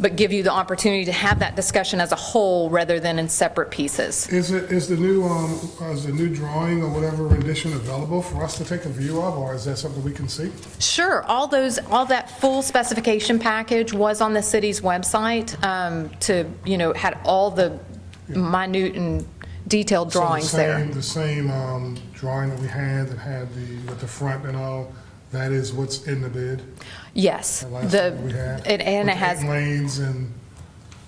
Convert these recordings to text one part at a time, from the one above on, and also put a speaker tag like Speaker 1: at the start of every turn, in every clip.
Speaker 1: but give you the opportunity to have that discussion as a whole rather than in separate pieces.
Speaker 2: Is it, is the new, um, is the new drawing or whatever rendition available for us to take a view of, or is that something we can see?
Speaker 1: Sure, all those, all that full specification package was on the city's website um, to, you know, had all the minute and detailed
Speaker 2: So the
Speaker 1: drawings there.
Speaker 2: same- The same, um, drawing that we had, that had the, with the front and all, that is what's in the bid?
Speaker 1: Yes.
Speaker 2: that last
Speaker 1: the
Speaker 2: one we had,
Speaker 1: and- And
Speaker 2: with
Speaker 1: it has
Speaker 2: eight Lanes and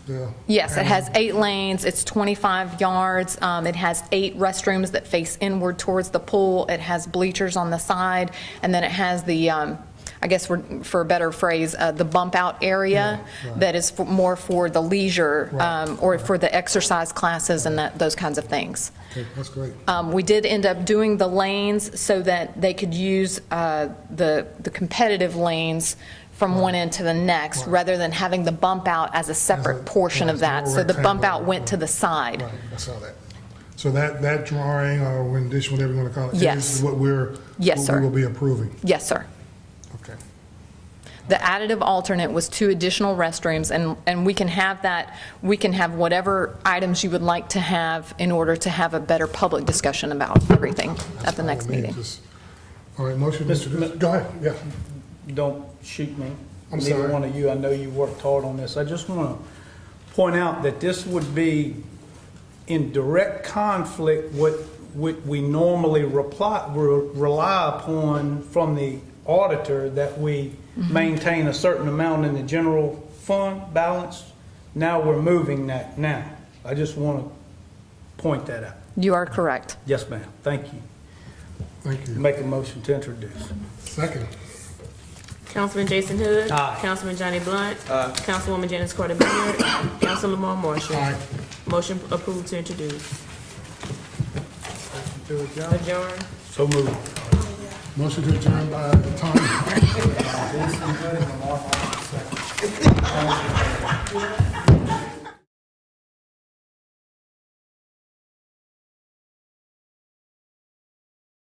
Speaker 2: the.
Speaker 1: Yes, it has
Speaker 2: and-
Speaker 1: eight lanes, it's 25 yards, um, it has eight restrooms that face inward towards the pool, it has bleachers on the side, and then it has the, um, I guess for for a better phrase, uh, the bump-out area
Speaker 2: Yeah, right.
Speaker 1: that is for- more for the leisure
Speaker 2: Right,
Speaker 1: um, or for the exercise classes and that, those kinds of things.
Speaker 2: Okay, That's great.
Speaker 1: Um, We did end up doing the lanes so that they could use uh, the the competitive lanes from one end to the next, rather than having the bump out as a separate portion
Speaker 2: yeah,
Speaker 1: of
Speaker 2: it's a
Speaker 1: that.
Speaker 2: little
Speaker 1: So the bump out
Speaker 2: rectangle.
Speaker 1: went to the side.
Speaker 2: Right, I saw that. So that, that drawing or rendition, whatever you want to call it,
Speaker 1: Yes.
Speaker 2: is what we're.
Speaker 1: Yes,
Speaker 2: what
Speaker 1: sir.
Speaker 2: We will be approving.
Speaker 1: Yes, sir.
Speaker 2: Okay.
Speaker 1: The additive alternate was two additional restrooms, and, and we can have that, we can have whatever items you would like to have in order to have a better public discussion about everything at the next
Speaker 2: All right,
Speaker 1: meeting.
Speaker 2: just- All right, motion,
Speaker 3: Mr.
Speaker 2: Mr. Goode.
Speaker 3: Mi-
Speaker 2: Go ahead, yeah.
Speaker 3: don't shoot me.
Speaker 2: I'm
Speaker 3: Neither
Speaker 2: sorry.
Speaker 3: one of you, I know you worked hard on this. I just want to point out that this would be in direct conflict with what we normally reply, re- rely upon from the auditor that we maintain a certain amount in the general fund balance. Now we're moving that now. I just want to point that out.
Speaker 1: You are correct.
Speaker 3: Yes, ma'am. Thank you.
Speaker 2: Thank you.
Speaker 3: Make a motion to introduce.
Speaker 2: Second.
Speaker 4: Councilman Jason Hood.
Speaker 3: Aye.
Speaker 4: Councilman Johnny Blunt. Councilwoman Janice Carter Beard. Council Lamar Marshall.
Speaker 2: Aye.
Speaker 4: Motion approved to introduce. Adjourn.
Speaker 3: So moved.
Speaker 2: Motion to adjourn by Tom